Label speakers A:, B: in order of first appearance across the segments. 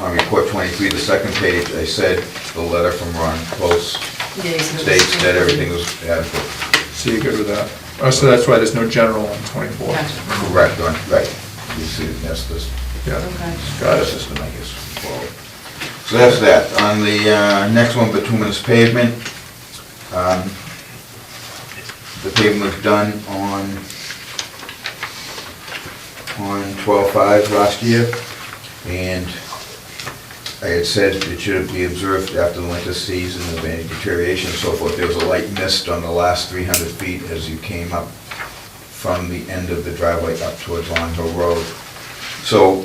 A: On report 23, the second page, I said the letter from Ron Close states that everything was adequate.
B: So you're good with that? Oh, so that's why there's no general on 24?
C: Gotcha.
A: Correct, on- right. You see, that's this,
B: Yeah.
C: Okay.
A: got a system, I guess. forward. So that's that. On the uh, next one, bituminous pavement, um, the pavement was done on, on 12/5 last year, and I had said it should be observed after the winter season of any deterioration and so forth. There was a light mist on the last 300 feet as you came up from the end of the driveway up towards Long Hill Road. So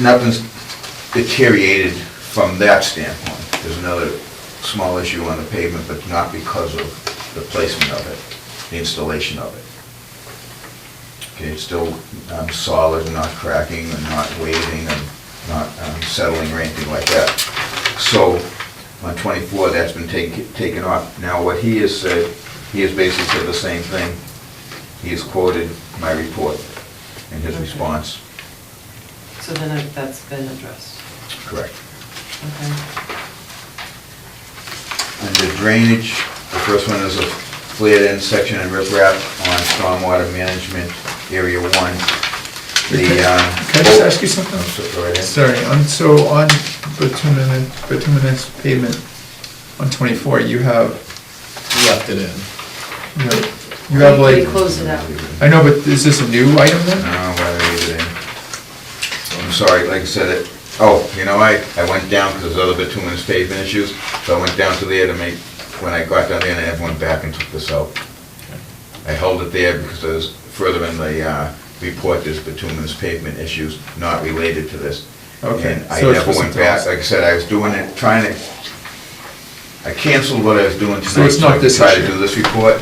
A: nothing's deteriorated from that standpoint. There's another small issue on the pavement, but not because of the placement of it, the installation of it. Okay, it's still um, solid, not cracking, and not waving, and not um, settling or anything like that. So on 24, that's been taken taken off. Now, what he has said, he has basically said the same thing. He has quoted my report in his
C: Okay.
A: response.
C: So then it- that's been addressed,
A: Correct.
C: okay.
A: Under drainage, the first one is a flared-end section and riprap on stormwater management, area one. The, uh...
B: Can I just ask you something?
A: Oh, so- Go right ahead.
B: Sorry, on, so on bituminous, bituminous pavement on 24, you have,
D: left it in.
B: you know, you have
C: We-
B: like,
C: We closed it out.
B: I know, but is this a new item then?
A: No, why did I leave it in? I'm sorry, like I said, it, oh, you know, I, I went down because there's other bituminous pavement issues, so I went down to there to make, when I got down there, and I went back and took this out. I held it there because there's, further in the, uh, report, there's bituminous pavement issues not related to this.
B: Okay,
A: And I
B: so it's
A: never
B: for
A: went
B: something
A: back,
B: else.
A: like I said, I was doing it, trying to, I canceled what I was doing tonight.
B: So it's not this
A: Try to
B: issue.
A: do this report,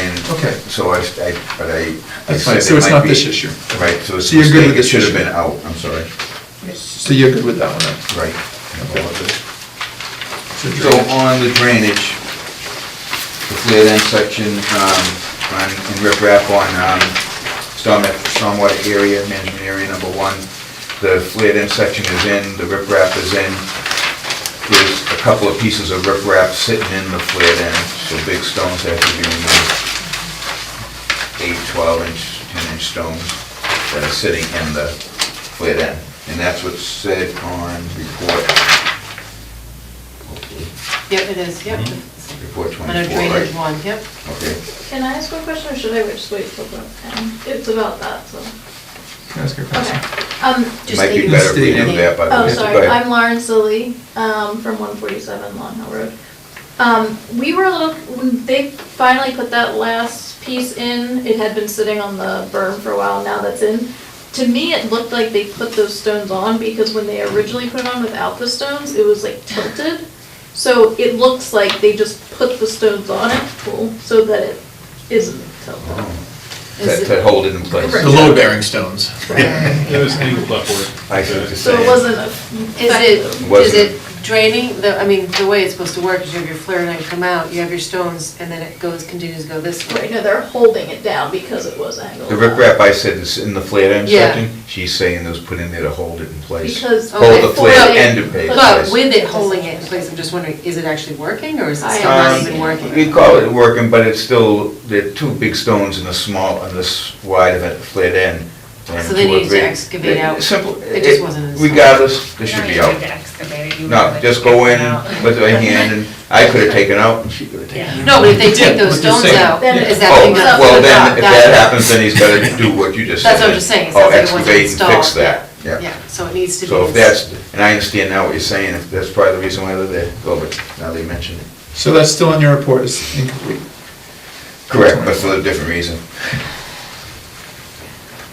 A: and.
B: Okay.
A: So I, I, but I. I
B: That's
A: said
B: fine, so
A: it
B: it's
A: might
B: not
A: be-
B: this issue.
A: Right, so it's
B: So you're good with
A: it
B: this
A: should have
B: issue?
A: been out, I'm sorry,
B: So you're good with that one then?
A: right.
B: Okay. So
A: So uh,
B: drainage.
A: on the drainage, the flared end section, um, on, in riprap on, um, storm, stormwater area, management area number one, the flared end section is in, the riprap is in. There's a couple of pieces of riprap sitting in the flared end, so big stones have to be removed. Eight, twelve inch, ten inch stones that are sitting in the flared end. And that's what's said on report. Hopefully.
C: Yep, it is, yep.
A: Report 24,
C: Under drainage
A: Mm-hmm. right?
C: one, yep.
A: Okay.
E: Can I ask one question or should I just wait till about ten? It's about that, so.
B: Can I ask you a
E: Okay.
B: question?
E: Um,
A: It
E: just
A: Might
E: that
A: be
E: you-
A: better if we do
B: Stay-
A: that, but...
E: Oh,
A: Uh, Go
E: sorry,
A: ahead.
E: I'm Lauren Silly, um, from one forty-seven Long Hill Road. Um, we were a little, when they finally put that last piece in, it had been sitting on the berm for a while, now that's in. To me, it looked like they put those stones on because when they originally put it on without the stones, it was like tilted. So it looks like they just put the stones on it, cool, so that it isn't tilted. Is
A: To
E: it-
A: to hold it in place.
E: Right.
D: The load bearing stones.
F: It was angled upward.
A: I see what you're
E: So it
A: saying.
E: wasn't a.
C: Is it, is
A: Wasn't-
C: it draining, the, I mean, the way it's supposed to work is you have your flare and then come out, you have your stones, and then it goes, continues to go this
E: Right,
C: way.
E: no, they're holding it down because it was angled.
A: The riprap I said is in the flared end
C: Yeah.
A: section, she's saying it was put in there to hold it in place.
E: Because.
C: Okay.
A: Hold the
C: Well,
A: flared end in place.
C: But with it holding it in place, I'm just wondering, is it actually working, or is it
E: I
C: still not
E: am
C: even
A: Um, We
C: working?
A: call it working, but it's still, there are two big stones in the small, on this wide of it, flared end. and
C: So they
A: two or
C: need to
A: three-
C: excavate out.
A: Simple.
C: It just wasn't installed.
A: Regardless, they should be
G: You don't
A: out.
G: need to excavate it, you
A: No,
G: really
A: just go in
G: take it out.
A: with a hand, and I could have taken out, and she could have taken out.
G: Yeah.
C: No, but if they take those
B: what you're
C: stones
B: saying.
C: out,
E: Then
C: is
E: it
C: that
A: Oh,
C: thing
E: comes up
C: not?
A: well,
E: to the
A: then,
E: top.
A: if that happens, then he's gotta do what you just said.
C: That's what I'm just saying, it
A: Oh,
C: sounds like it wasn't
A: excavate and fix
C: installed, yeah.
A: that, yeah.
C: Yeah, so it needs to be.
A: So if that's, and I understand now what you're saying, if that's probably the reason why they're there, well, but now they mentioned it.
B: So that's still in your report, it's incomplete.
A: Correct, but for a different reason.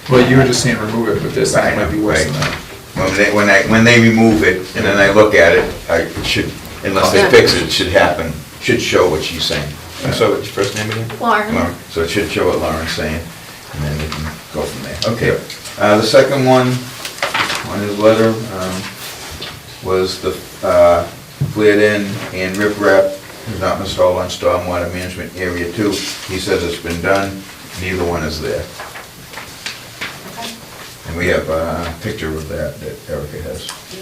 B: Well, you were just saying remove it, but this
A: Right,
B: might be worse than
A: right.
B: that.
A: When they, when I, when they remove it, and then I look at it, I it should, unless they fix it, it should happen, should show what she's saying. And so, what's your first name again?
E: Lauren.
A: Lauren. So it should show what Lauren's saying, and then we can go from there. Okay, uh, the second one, on his letter, um, was the, uh, flared end and riprap is not installed on stormwater management area two. He says it's been done, neither one is there. And we have uh, a picture of that that Erica has.